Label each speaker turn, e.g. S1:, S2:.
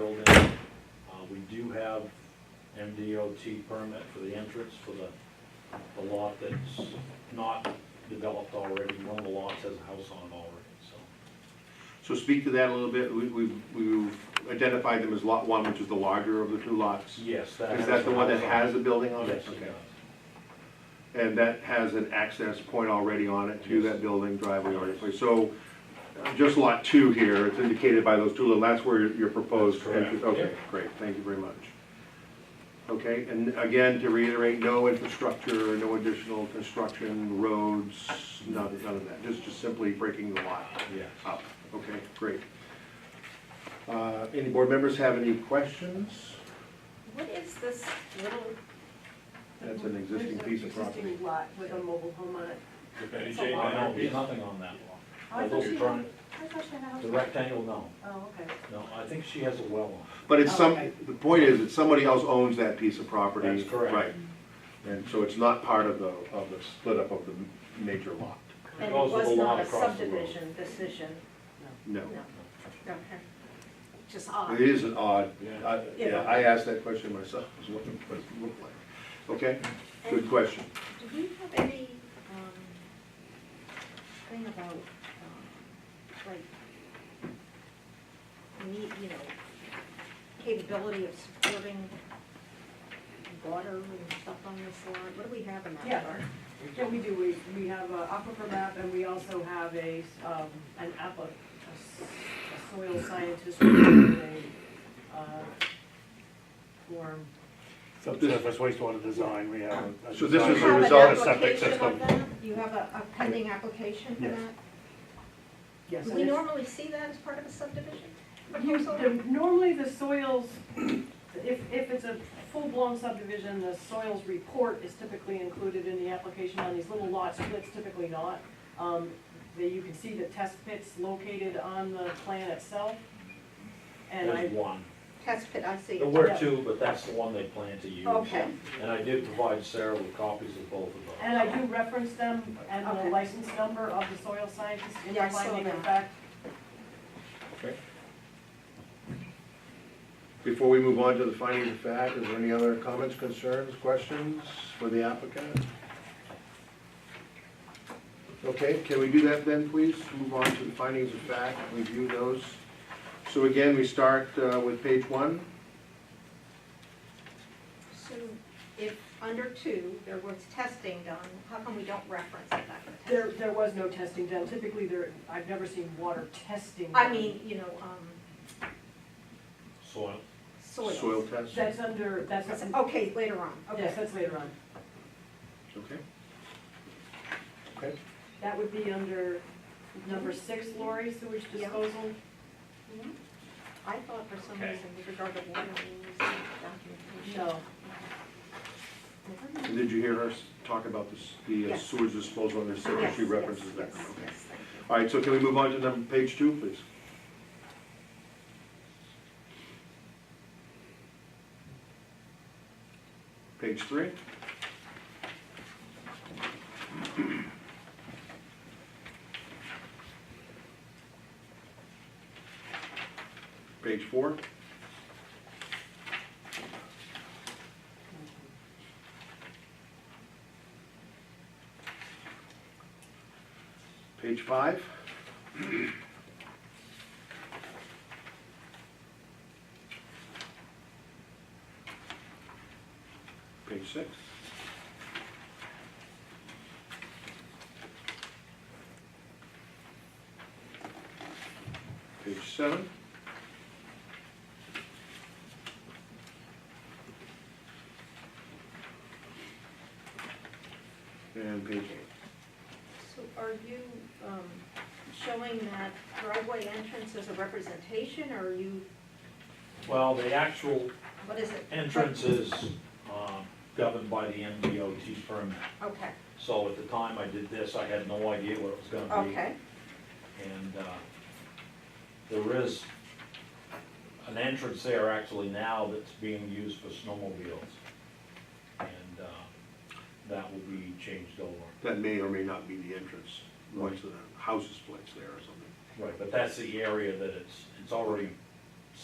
S1: Uh, do you have MDOT permit for the entrance for the, the lot that's not developed already? One of the lots has a house on it already, so.
S2: So speak to that a little bit, we, we've, we've identified them as lot one, which is the larger of the two lots.
S1: Yes, that.
S2: Is
S1: has
S2: that the
S1: a
S2: one that
S1: house on
S2: has the building on it?
S1: Yes, it
S2: Okay.
S1: does.
S2: And that has an access point already on it to
S1: Yes.
S2: that building driveway already, place. so uh, just lot two here, it's indicated by those two little, that's where your proposed
S1: That's correct.
S2: entrance, okay, great, thank you very much. Okay, and again, to reiterate, no infrastructure, no additional construction, roads, none, none of that, just, just simply breaking the lot
S1: Yes.
S2: up, okay, great. Uh, any board members have any questions?
S3: What is this little?
S2: That's an existing
S3: There's a
S2: piece of property.
S3: Existing lot with a mobile home on it.
S4: Betty
S3: It's
S4: Jane
S3: a lot.
S1: I know,
S4: Maynard,
S1: there's
S4: yes.
S1: nothing on that
S3: Oh, I
S1: lot.
S3: thought
S1: Although
S3: she
S1: we're
S3: had,
S1: trying,
S3: I thought she had a house.
S1: the rectangle, no,
S3: Oh, okay.
S1: no, I think she has a well on it.
S2: But it's some,
S3: Oh, okay.
S2: the point is that somebody else owns that piece of property.
S1: That's correct.
S2: Right. And so it's not part of the, of the split up of the major lot.
S3: And it
S1: Because of the
S3: was
S1: lot
S3: not a
S1: across the road.
S3: subdivision decision,
S2: No.
S3: no. Okay. Just
S2: It
S3: odd.
S2: is an odd,
S1: Yeah.
S2: I- yeah, I asked that question myself, is what it what it looked like. Okay, good
S5: And-
S2: question.
S5: Do we have any, um, thing about, um, like, need, you know, capability of supporting water and stuff on this line? What do we have in that
S6: Yeah.
S5: regard?
S6: Yeah, we do, we, we have a aquifer map and we also have a, um, an app, a s- a soil scientist with a, uh, form.
S4: Subsurface wastewater design, we have. a- a
S2: So this
S4: design
S2: is
S5: You
S2: a
S4: for
S5: have an
S2: result
S4: a septic
S5: application
S4: system.
S5: of that? You have a, a pending application for
S4: Yes.
S5: that?
S6: Yes,
S5: Do
S6: and
S5: we
S6: it's-
S5: normally see that as part of a subdivision
S6: You-
S5: proposal?
S6: the- Normally the soils, if, if it's a full-blown subdivision, the soils report is typically included in the application on these little lot splits, typically not. Um, that you can see the test pits located on the plan itself. And I,
S1: There's one.
S5: Test pit, I see.
S1: There were two, but that's the one they plan to use.
S5: Okay.
S1: And I did provide Sarah with copies of both of those.
S6: And I do reference them and the
S5: Okay.
S6: license number of the soil scientist in
S5: Yeah,
S6: the
S5: I saw
S6: finding of
S5: that.
S6: fact.
S2: Before we move on to the findings of fact, is there any other comments, concerns, questions for the applicant? Okay, can we do that then, please? Move on to the findings of fact, review those. So again, we start uh, with page one.
S5: So if under two, there was testing done, how come we don't reference that?
S6: There, there was no testing done. Typically, there, I've never seen water testing.
S5: I
S6: done.
S5: mean, you know, um,
S1: Soil.
S5: soils.
S2: Soil test,
S6: That's under, that's,
S5: That's- Okay, later on,
S6: yes,
S5: okay.
S6: that's later on.
S2: okay? Okay,
S6: That would be under number six, Lori, sewage
S5: Yeah.
S6: disposal. Mm-hmm.
S5: Mhm. I thought for some
S1: Okay.
S5: reason with regard to water, we used documentation.
S6: No,
S5: Never mind.
S2: and did you hear her s- talk about this- the uh,
S5: Yes.
S2: sewage disposal on the city?
S5: Yes,
S2: She
S5: yes,
S2: references that,
S5: yes,
S2: okay.
S5: yes, thank you.
S2: All right, so can we move on to number, page two, please? Page three? Page four? Page five? Page six? Page seven? And page eight.
S5: So are you, um, showing that driveway entrance as a representation, or are you,
S1: Well, the actual
S5: what is it?
S1: entrance is um, governed by the MDOT permit.
S5: Okay,
S1: So at the time I did this, I had no idea what it was gonna be.
S5: okay,
S1: And uh, there is an entrance there actually now that's being used for snowmobiles. And uh, that will be changed over.
S2: That may or may not be the entrance, once the house is placed there or something.
S1: Right, but that's the area that it's, it's already